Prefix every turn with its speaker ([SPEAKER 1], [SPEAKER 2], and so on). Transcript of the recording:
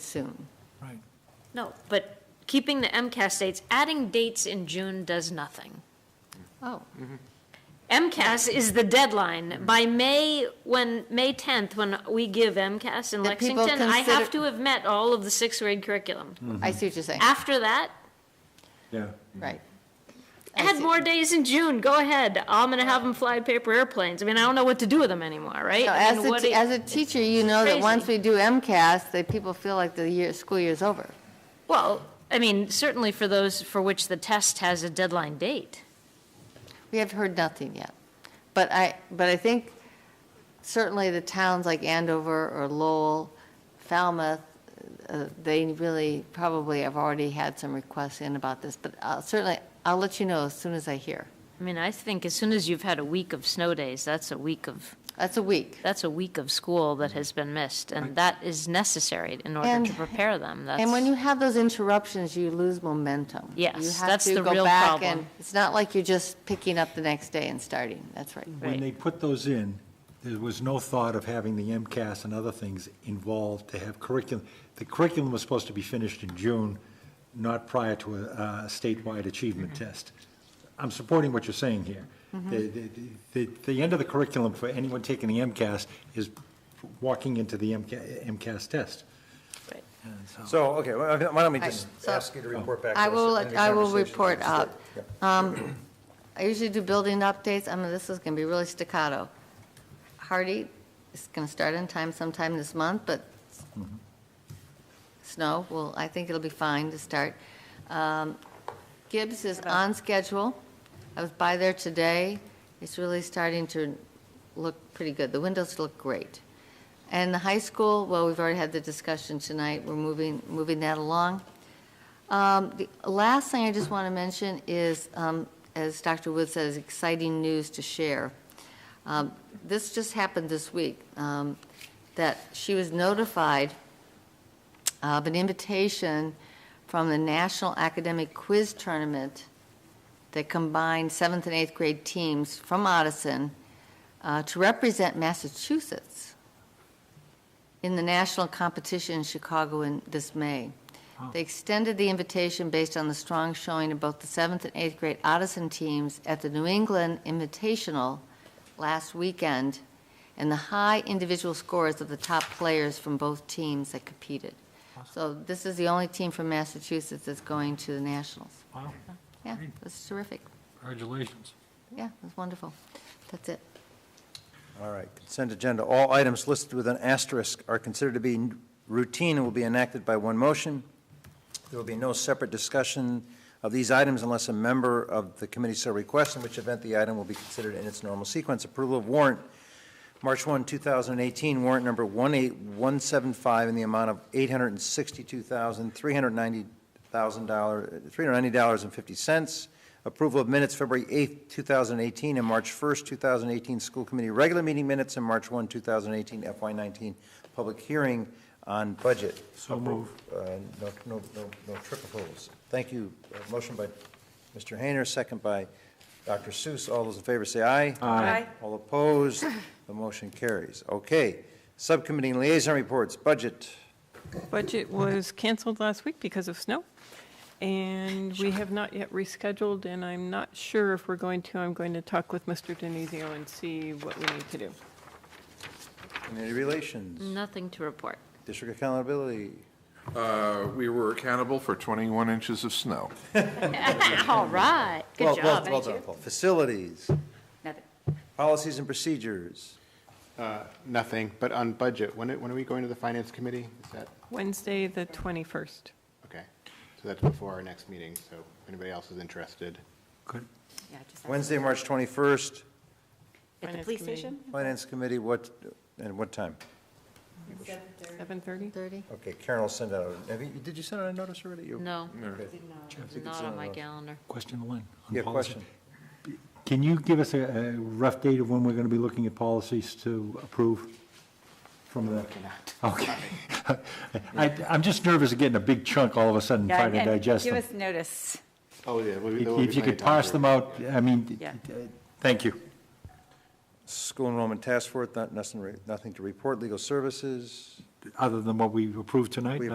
[SPEAKER 1] soon.
[SPEAKER 2] Right.
[SPEAKER 3] No, but keeping the MCAS dates, adding dates in June does nothing.
[SPEAKER 1] Oh,
[SPEAKER 3] MCAS is the deadline. By May, when, May 10th, when we give MCAS in
[SPEAKER 1] That people
[SPEAKER 3] Lexington, I have
[SPEAKER 1] consider-
[SPEAKER 3] to have met all of the sixth grade curriculum.
[SPEAKER 1] I see what you're saying,
[SPEAKER 3] After that,
[SPEAKER 4] Yeah.
[SPEAKER 1] right. I
[SPEAKER 3] add
[SPEAKER 1] see.
[SPEAKER 3] more days in June, go ahead. I'm gonna have them fly paper airplanes. I mean, I don't know what to do with them anymore, right?
[SPEAKER 1] No,
[SPEAKER 3] I
[SPEAKER 1] As
[SPEAKER 3] mean,
[SPEAKER 1] a,
[SPEAKER 3] what
[SPEAKER 1] te-
[SPEAKER 3] do-
[SPEAKER 1] as a teacher, you know that
[SPEAKER 3] crazy.
[SPEAKER 1] once we do MCAS, that people feel like the year, school year's over.
[SPEAKER 3] Well, I mean, certainly for those for which the test has a deadline date.
[SPEAKER 1] We have heard nothing yet. But I, but I think certainly the towns like Andover or Lowell, Falmouth, uh, they really probably have already had some requests in about this, but I'll- certainly, I'll let you know as soon as I hear.
[SPEAKER 3] I mean, I think as soon as you've had a week of snow days, that's a week of
[SPEAKER 1] That's a week.
[SPEAKER 3] that's a week of school that has been missed, and that is necessary in order
[SPEAKER 1] And-
[SPEAKER 3] to prepare them. That's,
[SPEAKER 1] And when you have those interruptions, you lose momentum.
[SPEAKER 3] Yes,
[SPEAKER 1] You have
[SPEAKER 3] that's
[SPEAKER 1] to
[SPEAKER 3] the
[SPEAKER 1] go
[SPEAKER 3] real
[SPEAKER 1] back
[SPEAKER 3] problem.
[SPEAKER 1] and- It's not like you're just picking up the next day and starting, that's right.
[SPEAKER 3] Right.
[SPEAKER 4] When they put those in, there was no thought of having the MCAS and other things involved to have curriculum. The curriculum was supposed to be finished in June, not prior to a uh, statewide achievement test. I'm supporting what you're saying here. The- The the- the end of the curriculum for anyone taking the MCAS is walking into the MCA MCAS test.
[SPEAKER 3] Right.
[SPEAKER 4] And so-
[SPEAKER 5] So, okay, why don't why don't we just
[SPEAKER 1] I- so-
[SPEAKER 5] ask you to report back to us?
[SPEAKER 1] I will,
[SPEAKER 5] in the
[SPEAKER 1] I will
[SPEAKER 5] conversation
[SPEAKER 1] report
[SPEAKER 5] that we
[SPEAKER 1] out.
[SPEAKER 5] started.
[SPEAKER 1] Um, I usually do building updates, I mean, this is going to be really staccato. Hardy is going to start on time sometime this month, but
[SPEAKER 5] Mm-hmm.
[SPEAKER 1] snow, well, I think it'll be fine to start. Um, Gibbs is on schedule. I was by there today. It's really starting to look pretty good. The windows look great. And the high school, well, we've already had the discussion tonight. We're moving, moving that along. Um, The last thing I just want to mention is, um, as Dr. Wood says, exciting news to share. Um, This just happened this week, um, that she was notified of an invitation from the National Academic Quiz Tournament that combined seventh and eighth grade teams from Odison uh, to represent Massachusetts in the national competition in Chicago in this May. They extended the invitation based on the strong showing of both the seventh and eighth grade Odison teams at the New England Invitational last weekend and the high individual scores of the top players from both teams that competed. So this is the only team from Massachusetts that's going to the nationals.
[SPEAKER 2] Wow,
[SPEAKER 1] Yeah, that's terrific.
[SPEAKER 2] congratulations.
[SPEAKER 1] Yeah, that's wonderful. That's it.
[SPEAKER 5] All right, consent agenda. All items listed with an asterisk are considered to be routine and will be enacted by one motion. There will be no separate discussion of these items unless a member of the committee so requests, in which event the item will be considered in its normal sequence. Approval of warrant, March 1, 2018, warrant number 18175 in the amount of $862,390, $390.50. Approval of minutes, February 8, 2018, and March 1, 2018, school committee regular meeting minutes, and March 1, 2018, FY19, public hearing on budget.
[SPEAKER 2] So move.
[SPEAKER 5] Uh, No, no, no no trick approvals. Thank you. Uh, Motion by Mr. Hayner, second by Dr. Seuss. All those in favor say aye.
[SPEAKER 2] Aye.
[SPEAKER 5] All opposed, the motion carries. Okay, subcommittee and liaison reports, budget.
[SPEAKER 6] Budget was canceled last week because of snow, and we have not yet rescheduled, and I'm not sure if we're going to. I'm going to talk with Mr. Denizio and see what we need to do.
[SPEAKER 5] Community relations,
[SPEAKER 3] Nothing to report.
[SPEAKER 5] district accountability.
[SPEAKER 7] Uh, We were accountable for 21 inches of snow.
[SPEAKER 3] All right,
[SPEAKER 5] Well-
[SPEAKER 3] good
[SPEAKER 5] well-
[SPEAKER 3] job.
[SPEAKER 5] Well done, Paul. Facilities. Policies and procedures.
[SPEAKER 8] Uh, Nothing, but on budget, when, it- when are we going to the finance committee? Is that,
[SPEAKER 6] Wednesday, the 21st.
[SPEAKER 8] okay, so that's before our next meeting, so if anybody else is interested.
[SPEAKER 2] Good.
[SPEAKER 5] Wednesday, March 21st,
[SPEAKER 6] At the police station?
[SPEAKER 5] finance committee, what, and what time?
[SPEAKER 6] 7:30?
[SPEAKER 1] 30?
[SPEAKER 5] Okay, Karen will send out, a- have you, did you send out a notice already? You-
[SPEAKER 3] No,
[SPEAKER 5] I think it's
[SPEAKER 3] not on my
[SPEAKER 5] uh,
[SPEAKER 3] calendar.
[SPEAKER 2] Question to Lynn. on
[SPEAKER 5] Yeah,
[SPEAKER 2] policy.
[SPEAKER 5] question.
[SPEAKER 4] Can you give us a a rough date of when we're going to be looking at policies to approve from the? Okay. I, I'm just nervous of getting a big chunk all of a sudden, trying to
[SPEAKER 9] and
[SPEAKER 4] digest
[SPEAKER 9] Give
[SPEAKER 4] them.
[SPEAKER 9] us notice.
[SPEAKER 8] Oh, yeah. well, there will be
[SPEAKER 4] If you
[SPEAKER 8] plenty
[SPEAKER 4] could
[SPEAKER 8] of time
[SPEAKER 4] parse
[SPEAKER 8] to-
[SPEAKER 4] them out, I mean,
[SPEAKER 9] Yeah.
[SPEAKER 4] thank you.
[SPEAKER 5] School enrollment task force, not- nothing, re- nothing to report, legal services.
[SPEAKER 4] Other than what we approved tonight,
[SPEAKER 5] We